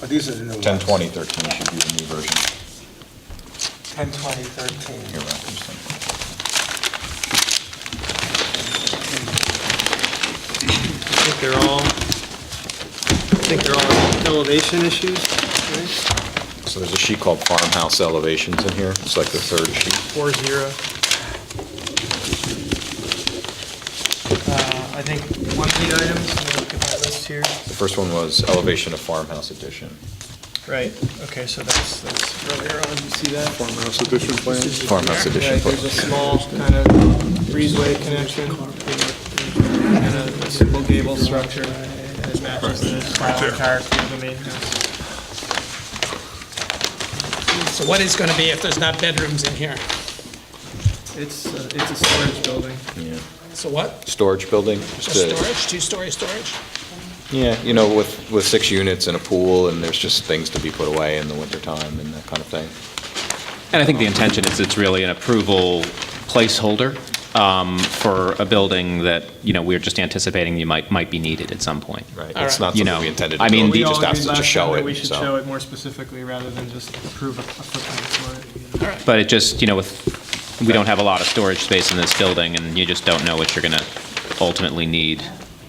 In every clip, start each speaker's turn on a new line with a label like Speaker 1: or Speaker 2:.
Speaker 1: Oh, these are the new ones.
Speaker 2: 10, 20, 13 should be the new version.
Speaker 1: 10, 20, 13.
Speaker 2: You're right, there's 10.
Speaker 3: I think they're all, I think they're all elevation issues, right?
Speaker 2: So there's a sheet called farmhouse elevations in here. It's like the third sheet.
Speaker 3: Four zero. Uh, I think one of the items, let me look at my list here.
Speaker 2: The first one was elevation of farmhouse addition.
Speaker 3: Right, okay, so that's, that's earlier on, you see that?
Speaker 4: Farmhouse addition plans?
Speaker 2: Farmhouse addition.
Speaker 3: Right, there's a small kind of breezeway connection and a a simple gable structure that matches the style and character of the main house.
Speaker 5: So what is going to be if there's not bedrooms in here?
Speaker 3: It's, uh, it's a storage building.
Speaker 2: Yeah.
Speaker 5: So what?
Speaker 2: Storage building? just
Speaker 5: Just
Speaker 2: a-
Speaker 5: storage, two-story storage?
Speaker 2: Yeah, you know, with, with six units and a pool, and there's just things to be put away in the wintertime and that kind of thing.
Speaker 6: And I think the intention is it's really an approval placeholder um, for a building that, you know, we're just anticipating you might, might be needed at some point.
Speaker 2: Right.
Speaker 5: All
Speaker 2: It's
Speaker 5: right.
Speaker 2: not
Speaker 6: You
Speaker 2: something
Speaker 6: know,
Speaker 2: we intended to do.
Speaker 6: I mean,
Speaker 2: We
Speaker 6: the-
Speaker 2: just
Speaker 3: all
Speaker 2: asked them to
Speaker 3: agreed last
Speaker 2: show
Speaker 3: time that
Speaker 2: it,
Speaker 3: We should
Speaker 2: so-
Speaker 3: show it more specifically rather than just approve a a footprint for it.
Speaker 6: But it just, you know, with, we don't have a lot of storage space in this building, and you just don't know what you're going to ultimately need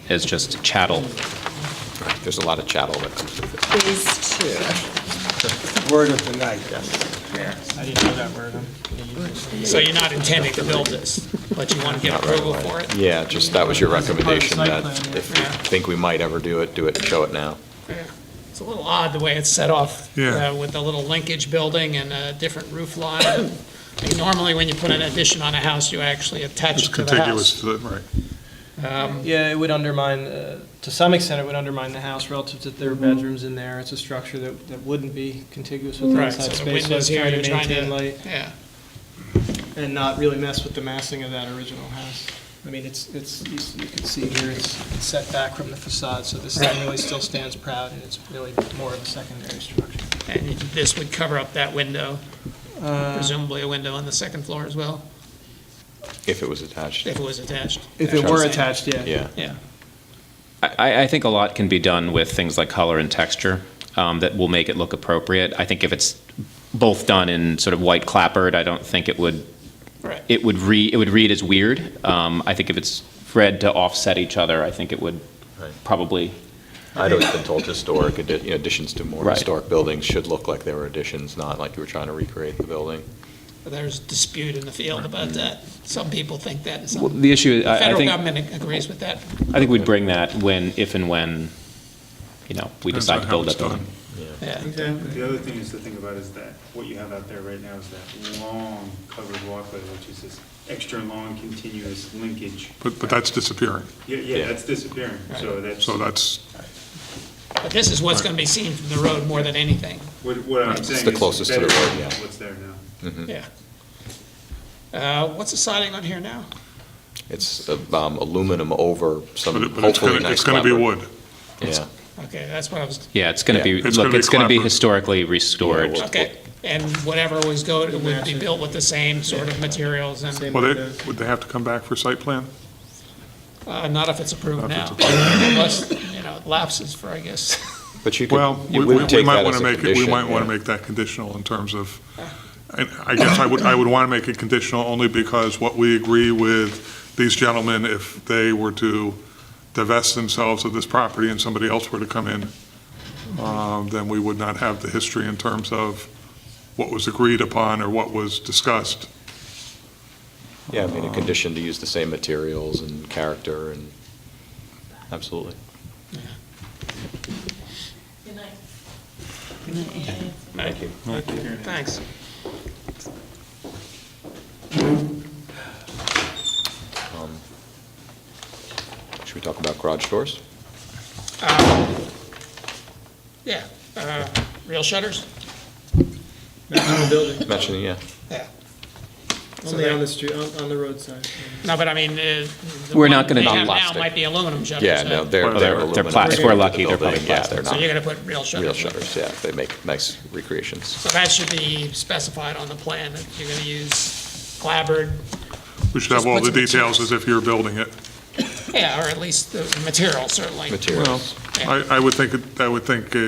Speaker 6: as just chattel.
Speaker 2: There's a lot of chattel that comes with it.
Speaker 7: Phase two.
Speaker 1: Word of the night, yes.
Speaker 3: I didn't know that word. I'm gonna use it.
Speaker 5: So you're not intending to build this, but you want to get
Speaker 2: Not right
Speaker 5: approval
Speaker 2: away.
Speaker 5: for it?
Speaker 2: Yeah, just, that was your
Speaker 3: It's a part of the
Speaker 2: recommendation, that
Speaker 3: site plan,
Speaker 2: if you
Speaker 5: yeah.
Speaker 2: think we might ever do it, do it and show it now.
Speaker 5: Yeah. It's a little odd the way it's set off.
Speaker 4: Yeah.
Speaker 5: uh, With the little linkage building and a different roof line. I mean, Normally, when you put an addition on a house, you actually attach
Speaker 4: It's
Speaker 5: it to the house. Um,
Speaker 4: contiguous to the, right.
Speaker 3: Yeah, it would undermine, uh, to some extent, it would undermine the house relative to their
Speaker 5: Mm-hmm.
Speaker 3: bedrooms in there. It's a structure that, that wouldn't be contiguous with the
Speaker 5: Right,
Speaker 3: inside
Speaker 5: so the
Speaker 3: space. So
Speaker 5: windows
Speaker 3: it's
Speaker 5: here,
Speaker 3: trying to
Speaker 5: you're trying to-
Speaker 3: maintain light
Speaker 5: Yeah,
Speaker 3: and not really mess with the massing of that original house. I mean, it's, it's, you s- you can see here, it's it's set back from the facade, so this thing really still stands proud, and it's really more of a secondary structure.
Speaker 5: and this would cover up that window, presumably a window on the second floor as well,
Speaker 2: If it was attached,
Speaker 5: if it was attached.
Speaker 3: If it were attached, yeah.
Speaker 2: yeah.
Speaker 5: Yeah.
Speaker 6: I, I think a lot can be done with things like color and texture um, that will make it look appropriate. I think if it's both done in sort of white clapboard, I don't think it would,
Speaker 5: Right.
Speaker 6: it would read, it would read as weird. Um, I think if it's read to offset each other, I think it would
Speaker 2: Right.
Speaker 6: probably,
Speaker 2: I'd always been told historic, addi- you know, additions to more
Speaker 6: Right.
Speaker 2: historic buildings should look like they were additions, not like you were trying to recreate the building.
Speaker 5: But There's dispute in the field about that. Some people think that, and some,
Speaker 6: the issue,
Speaker 5: the
Speaker 6: I, I
Speaker 5: federal
Speaker 6: think,
Speaker 5: government agrees with that.
Speaker 6: I think we'd bring that when, if and when, you know, we
Speaker 4: Depends
Speaker 6: decide
Speaker 4: on
Speaker 6: to
Speaker 4: how
Speaker 6: build
Speaker 4: it's
Speaker 6: that building.
Speaker 4: done.
Speaker 5: Yeah.
Speaker 8: But The other thing is to think about is that what you have out there right now is that long covered walkway, which is this extra long continuous linkage.
Speaker 4: But, but that's disappearing,
Speaker 8: Yeah,
Speaker 2: Yeah.
Speaker 8: yeah, that's disappearing, so that's
Speaker 4: so that's,
Speaker 5: But this is what's going to be seen from the road more than anything.
Speaker 8: what what I'm saying is.
Speaker 2: the closest to the
Speaker 8: better
Speaker 2: road,
Speaker 8: than
Speaker 2: yeah.
Speaker 8: What's there now.
Speaker 5: Yeah. Uh, What's the siding on here now?
Speaker 2: It's um, aluminum over some
Speaker 4: but it- but it's
Speaker 2: hopefully
Speaker 4: gonna,
Speaker 2: nice
Speaker 4: it's gonna be
Speaker 2: clapboard.
Speaker 4: wood.
Speaker 2: Yeah,
Speaker 5: Okay, that's what I was,
Speaker 6: Yeah, it's gonna be,
Speaker 4: Yeah. It's
Speaker 6: look,
Speaker 4: gonna be
Speaker 6: it's gonna be
Speaker 4: clapboard.
Speaker 6: historically restored.
Speaker 5: okay. And whatever was go, would be built with the same sort of materials and,
Speaker 4: Well, they, would they have to come back for site plan?
Speaker 5: uh, not if it's approved
Speaker 4: Not if
Speaker 5: now.
Speaker 4: it's
Speaker 5: Unless, you know, it lapses for, I guess.
Speaker 2: but you
Speaker 4: Well,
Speaker 2: could,
Speaker 4: we
Speaker 2: you
Speaker 4: we-
Speaker 2: would
Speaker 4: we
Speaker 2: take
Speaker 4: might
Speaker 2: that
Speaker 4: want
Speaker 2: as
Speaker 4: to
Speaker 2: a
Speaker 4: make, it. we
Speaker 2: condition.
Speaker 4: might want
Speaker 2: yeah.
Speaker 4: to make that conditional in terms of, and I guess I would, I would want to make it conditional only because what we agree with these gentlemen, if they were to divest themselves of this property and somebody else were to come in, um, then we would not have the history in terms of what was agreed upon or what was discussed.
Speaker 2: Yeah, I mean,
Speaker 4: Uh,
Speaker 2: a condition to use the same materials and character and, absolutely.
Speaker 7: Good night.
Speaker 5: Thank you. Thanks.
Speaker 2: Um, Should we talk about garage doors?
Speaker 5: Yeah. Uh, Real shutters?
Speaker 2: Mentioning, yeah.
Speaker 5: Yeah.
Speaker 3: Only on the street, on, on the roadside.
Speaker 5: No, but I mean, uh, the
Speaker 6: We're
Speaker 5: one
Speaker 6: not gonna
Speaker 5: they
Speaker 6: do
Speaker 5: have now
Speaker 2: plastic.
Speaker 5: might be aluminum shutters.
Speaker 2: Yeah,
Speaker 5: huh?
Speaker 2: no, they're,
Speaker 4: Well,
Speaker 2: they're
Speaker 6: they're-
Speaker 2: aluminum.
Speaker 6: they're plas-
Speaker 2: to
Speaker 6: we're
Speaker 2: the
Speaker 6: lucky they're
Speaker 2: building.
Speaker 6: probably
Speaker 2: Yeah,
Speaker 6: plastic.
Speaker 2: they're
Speaker 5: So
Speaker 2: not
Speaker 5: you're going to put real shutters?
Speaker 2: real
Speaker 5: in.
Speaker 2: shutters, yeah, they make nice recreations.
Speaker 5: So that should be specified on the plan, that you're going to use clabbered,
Speaker 4: We should have
Speaker 5: Just
Speaker 4: all
Speaker 5: put
Speaker 4: the
Speaker 5: some materials.
Speaker 4: details as if you're building it.
Speaker 5: yeah, or at least the material, certainly.
Speaker 2: Materials.
Speaker 5: Yeah.
Speaker 4: I, I would think, uh, it- I would think a